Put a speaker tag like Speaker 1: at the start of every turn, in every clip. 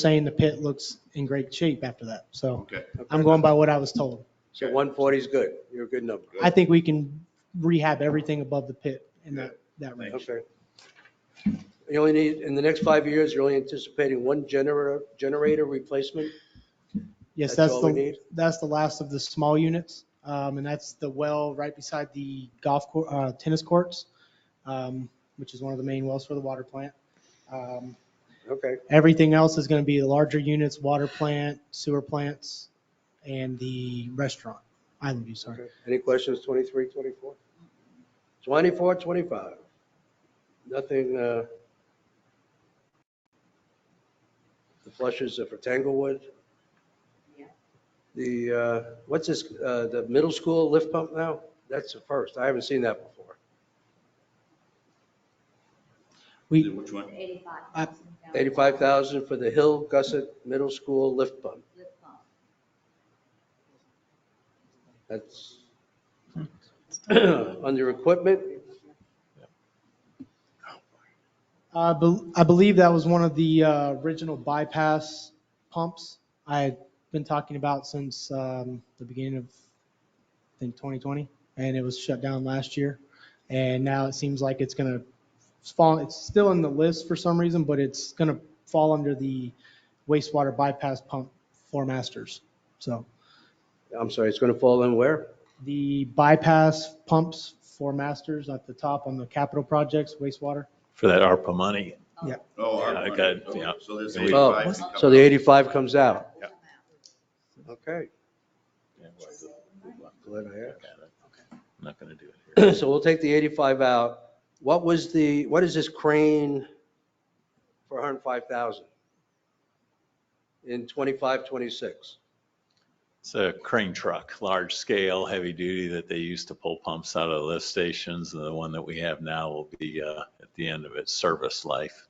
Speaker 1: saying the pit looks in great shape after that. So
Speaker 2: Okay.
Speaker 1: I'm going by what I was told.
Speaker 3: So 140 is good. You're a good number.
Speaker 1: I think we can rehab everything above the pit in that, that range.
Speaker 3: Okay. You only need, in the next five years, you're only anticipating one generator, generator replacement?
Speaker 1: Yes,
Speaker 3: That's
Speaker 1: that's
Speaker 3: all we
Speaker 1: the,
Speaker 3: need?
Speaker 1: that's the last of the small units. Um, and that's the well right beside the golf cour uh, tennis courts, um, which is one of the main wells for the water plant. Um,
Speaker 3: Okay,
Speaker 1: Everything else is going to be the larger units, water plant, sewer plants, and the restaurant, Island View, sorry.
Speaker 3: okay. Any questions, 23, 24? 24, 25? Nothing, uh, the flushes are for Tanglewood?
Speaker 4: Yeah.
Speaker 3: The, uh, what's this, uh, the middle school lift pump now? That's the first. I haven't seen that before.
Speaker 1: We,
Speaker 2: Which one?
Speaker 4: Eighty-five
Speaker 1: Uh,
Speaker 4: thousand.
Speaker 3: 85,000 for the Hill Gussit Middle School lift pump. That's under equipment.
Speaker 1: I bel- I believe that was one of the uh, original bypass pumps I had been talking about since um, the beginning of, I think, 2020, and it was shut down last year. And now it seems like it's going to fall, it's still in the list for some reason, but it's going to fall under the wastewater bypass pump for masters. So
Speaker 3: I'm sorry, it's going to fall in where?
Speaker 1: the bypass pumps for masters at the top on the capital projects, wastewater.
Speaker 5: for that ARPA money.
Speaker 2: Oh, our
Speaker 5: Yeah,
Speaker 2: money.
Speaker 5: good,
Speaker 2: Okay,
Speaker 5: yeah.
Speaker 2: So there's
Speaker 5: Oh,
Speaker 2: eighty-five.
Speaker 4: what's-
Speaker 2: can come
Speaker 3: So the
Speaker 2: out.
Speaker 3: 85 comes out.
Speaker 5: Yeah.
Speaker 3: Okay.
Speaker 5: I'm
Speaker 3: Glad I
Speaker 5: Not gonna do it here.
Speaker 3: asked. So we'll take the 85 out. What was the, what is this crane for 105,000? In 25, 26?
Speaker 5: It's a crane truck, large scale, heavy duty that they used to pull pumps out of the lift stations. And the one that we have now will be uh, at the end of its service life.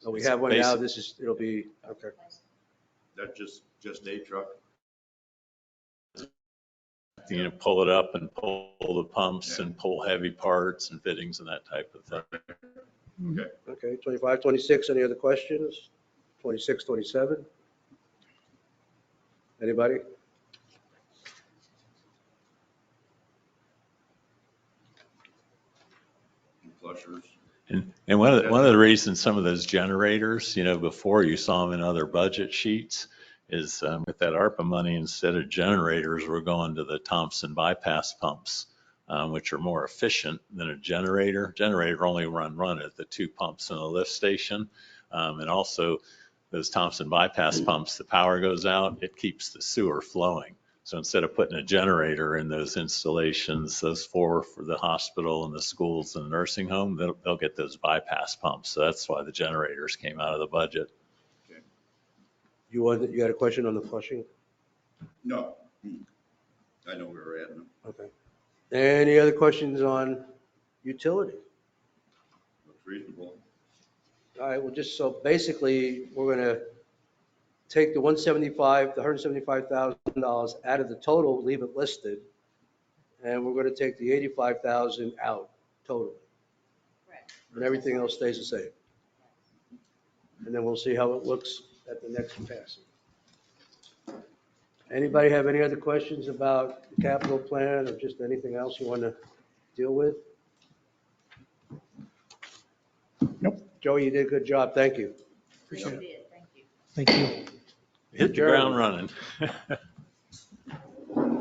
Speaker 3: So we
Speaker 5: It's
Speaker 3: have one now,
Speaker 5: basic-
Speaker 3: this is, it'll be, okay.
Speaker 2: That's just, just a truck.
Speaker 5: You know, pull it up and pull the pumps and pull heavy parts and fittings and that type of thing.
Speaker 3: Okay, 25, 26, any other questions? 26, 27? Anybody?
Speaker 2: and Flushers.
Speaker 5: And, and one of, the- one of the reasons some of those generators, you know, before you saw them in other budget sheets is um, with that ARPA money, instead of generators, we're going to the Thompson bypass pumps, um, which are more efficient than a generator. Generator only run, run at the two pumps in the lift station. Um, And also those Thompson bypass pumps, the power goes out, it keeps the sewer flowing. So instead of putting a generator in those installations, those four for the hospital and the schools and the nursing home, they'll, they'll get those bypass pumps. So that's why the generators came out of the budget.
Speaker 3: You want, you had a question on the flushing?
Speaker 2: No. Hmm. I know where we're at. now.
Speaker 3: Okay. Any other questions on utility?
Speaker 2: Looks reasonable.
Speaker 3: All right, well, just so basically, we're gonna take the one seventy-five, the hundred seventy-five thousand dollars out of the total, leave it listed. And we're gonna take the eighty-five thousand out total, and everything else stays the same. And then we'll see how it looks at the next passing. Anybody have any other questions about the capital plan or just anything else you wanna deal with? Nope. Joey, you did a good job, thank you.
Speaker 4: Appreciate it. Thank you.
Speaker 1: Thank you.
Speaker 5: Hit the ground running.